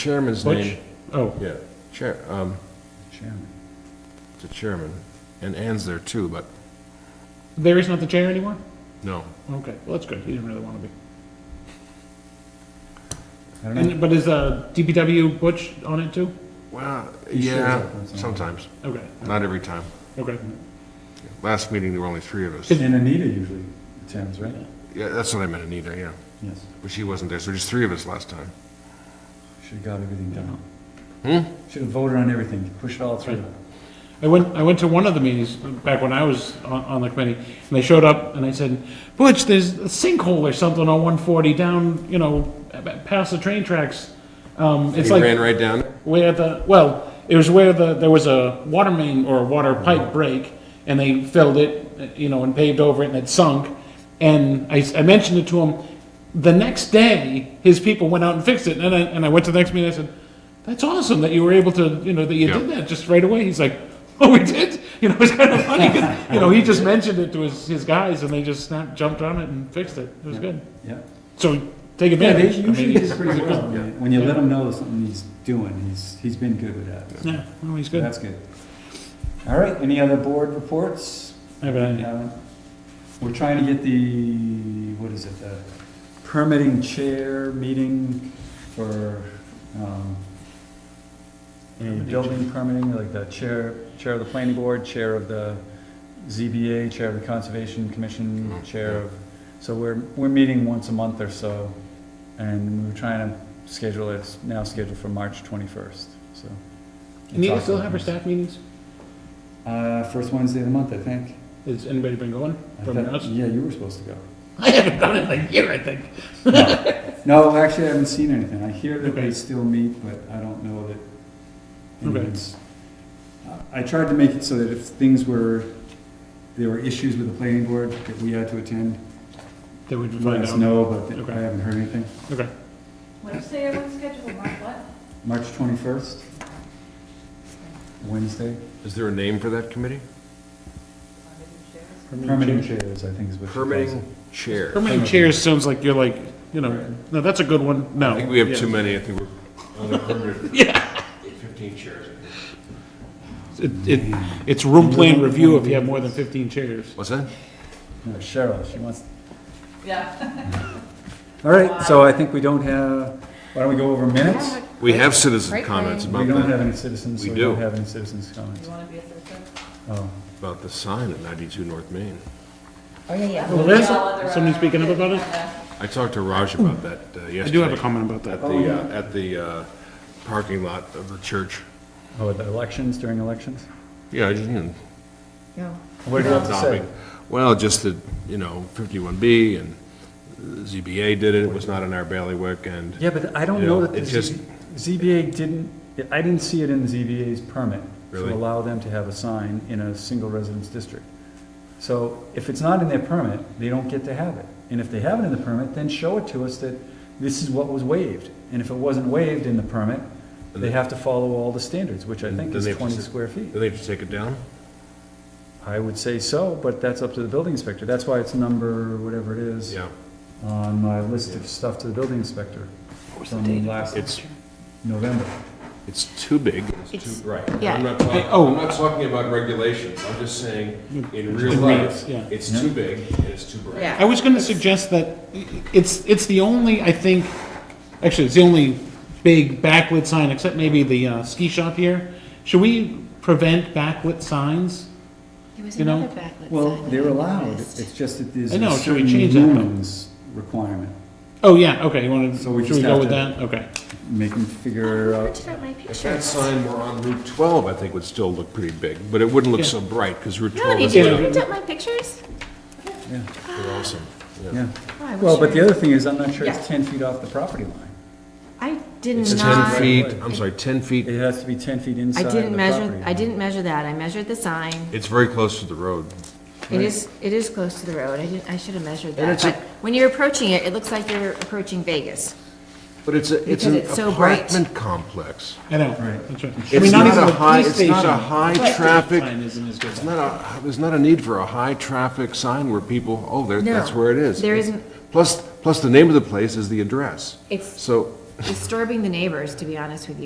chairman's Butch? name, Oh, yeah, chair, um, the chairman, and Ann's there too, but there is not the chair anymore? no. Okay, well, that's good, he didn't really want to be. I don't know. And, but is, uh, DPW Butch on it too? Well, He shows yeah, up on some. sometimes, Okay, not every time. okay. Last meeting, there were only three of us. And Anita usually attends, right? Yeah, that's what I meant, Anita, yeah, Yes. but she wasn't there, so just three of us last time. Should've got everything done. Hmm? Should've voted on everything, pushed it all through. I went, I went to one of the meetings back when I was on, on the committee, and they showed up and I said, Butch, there's a sinkhole or something on one forty down, you know, a- past the train tracks. Um, it's He like ran right down. where the, well, it was where the, there was a water main or a water pipe break, and they filled it, you know, and paved over it, and it sunk. And I, s- I mentioned it to him, the next day, his people went out and fixed it, and I, and I went to the next meeting, I said, that's awesome that you were able to, you know, that you did Yeah. that just right away, he's like, oh, we did? You know, it's kind of funny, 'cause, you know, he just mentioned it to his, his guys, and they just snapped, jumped on it and fixed it, it was Yeah. good. Yeah. So, take Yeah, they advantage. I mean, usually he's- do pretty well. When you let him know something he's doing, he's, he's been good with that. So Yeah, no, he's good. That's good. All right, any other board reports? I have an idea. Uh, We're trying to get the, what is it, the permitting chair meeting for, um, building permitting, like the chair, chair of the planning board, chair of the ZBA, chair of the conservation commission, Mm, chair yeah. of, so we're, we're meeting once a month or so, and we're trying to schedule it, it's now scheduled for March twenty-first, so. And you it's still awesome. have our staff meetings? Uh, first Wednesday of the month, I think. Has anybody been going I from thought- us? Yeah, you were supposed to go. I haven't done it in a year, I think. No, actually, I haven't seen anything. I hear that they Okay. still meet, but I don't know that Okay. anyone's. uh, I I tried to make it so that if things were, there were issues with the planning board that we had to attend, Then we can let find us out. know, but Okay. I haven't heard anything. Okay. Wednesday, everyone's scheduled, Mark, what? March twenty-first? Wednesday? Is there a name for that committee? Permanent chairs, I think is what. she calls Permitting it. chair. Permanent chairs sounds like you're like, you know, Right. no, that's a good one, no. I think we have Yeah. too many, I think we're under 100. Yeah. 15 chairs. It, it, it's room plan review if you have more than fifteen chairs. What's that? No, Cheryl, she wants, Yeah. all right, so I think we don't have, why don't we go over minutes? We have citizen Right. comments We about don't have that, any citizens, so We we don't do. have any citizens' comments. You wanna be a citizen? Oh. about the sign at 92 North Main. Oh, yeah, yeah. Well, there's somebody speaking up about it? I talked to Raj about that uh, yesterday. Hmm. I do have a comment about that. At the, uh, at the uh, parking lot of the church. Oh, at the elections, during elections? Yeah, I just, you know, Yeah. What do you have to say? topic. Well, just that, you know, 51B and ZBA did it, it was not in our bailiwick, and Yeah, but I don't You know know, that the it just- Z- ZBA didn't, I didn't see it in the ZBA's permit Really? to allow them to have a sign in a single residence district. So if it's not in their permit, they don't get to have it. And if they have it in the permit, then show it to us that this is what was waived. And if it wasn't waived in the permit, they have to follow all the standards, which I think Then is they have to twenty s- square feet. did they just take it down? I would say so, but that's up to the building inspector. That's why it's number, whatever it is, Yeah. on my list of stuff to the building inspector from last It's, November. it's too big, it's It's- too, right. yeah. I'm not talking, oh. I'm not talking about regulations, I'm just saying, Hmm. in real In real- life, yeah. it's Yeah. too big and it's too bright. Yeah. I was gonna suggest that it's, it's the only, I think, actually, it's the only big backlit sign, except maybe the uh, ski shop here. Should we prevent backlit signs? There was You know? another backlit Well, sign that they're I allowed, noticed. it's just that there's I know, a should we certain change that, though? lumens requirement. Oh, yeah, okay, you wanna, So should we we just go have with to- that? Okay. Make them figure I out, printed out my If that pictures. sign were on Route 12, I think would still look pretty big, but it wouldn't look Yeah. so bright, because Route No, 12 did is you Yeah. print out my pictures? yeah, they're awesome. yeah. Oh, I Well, wish but I- the other thing is, I'm not sure it's Yeah. ten feet off the property line. I did It's 10 not, feet, I'm sorry, 10 feet, It has to be ten feet I inside of the didn't measure, property I line. didn't measure that. I measured the sign. it's very close to the road. It is, it is close to the road. I didn't, I should have measured And that. it's a- But when you're approaching it, it looks like you're approaching Vegas. But it's a, it's Because an it's so bright. apartment complex. I know, Right. that's right. I mean, It's not not even a the high, police it's not a station high traffic, sign isn't as good. it's not a, there's not a need for a high-traffic sign where people, oh, there, No, that's where it is. there isn't. Plus, plus the name of the place is the address. It's- So, disturbing the neighbors, to be honest with you.